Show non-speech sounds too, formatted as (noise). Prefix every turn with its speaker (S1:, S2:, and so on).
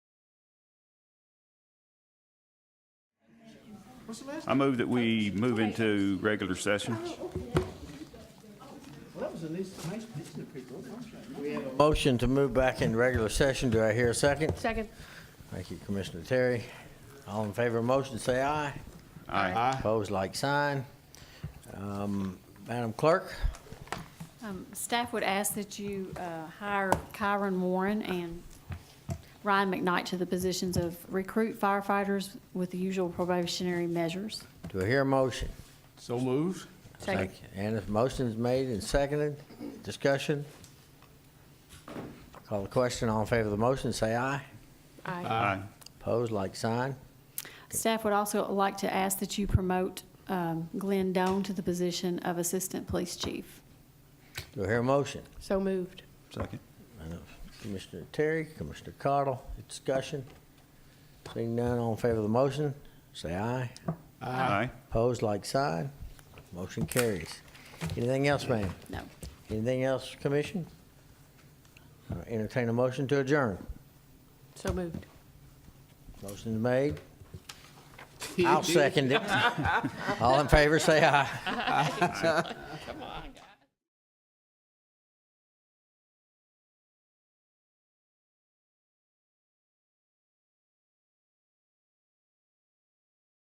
S1: What's the last?
S2: I move that we move into regular session.
S1: Well, that was at least nice picture of people, wasn't it?
S3: Motion to move back in regular session. Do I hear a second?
S4: Second.
S3: Thank you, Commissioner Terry. All in favor of motion, say aye.
S2: Aye.
S3: Opposed, like sign. Um, Madam Clerk,
S4: Um, Staff would ask that you uh, hire Kyron Warren and Ryan McKnight to the positions of recruit firefighters with the usual probationary measures.
S3: do I hear a motion?
S1: So moved.
S4: Second.
S3: And if motion's made and seconded, discussion? Call the question. All in favor of the motion, say aye.
S2: Aye.
S3: Opposed, like sign.
S4: Staff would also like to ask that you promote um, Glenn Doan to the position of Assistant Police Chief.
S3: Do I hear a motion?
S5: So moved.
S2: Second.
S3: Commissioner Terry, Commissioner Cottle, discussion? Seeing none, all in favor of the motion, say aye.
S2: Aye.
S3: Opposed, like sign. Motion carries. Anything else, ma'am?
S4: No.
S3: Anything else, commission? Uh, Entertain a motion to adjourn.
S5: So moved.
S3: Motion's
S5: (laughs)
S3: made. I'll second it. All in favor, say aye.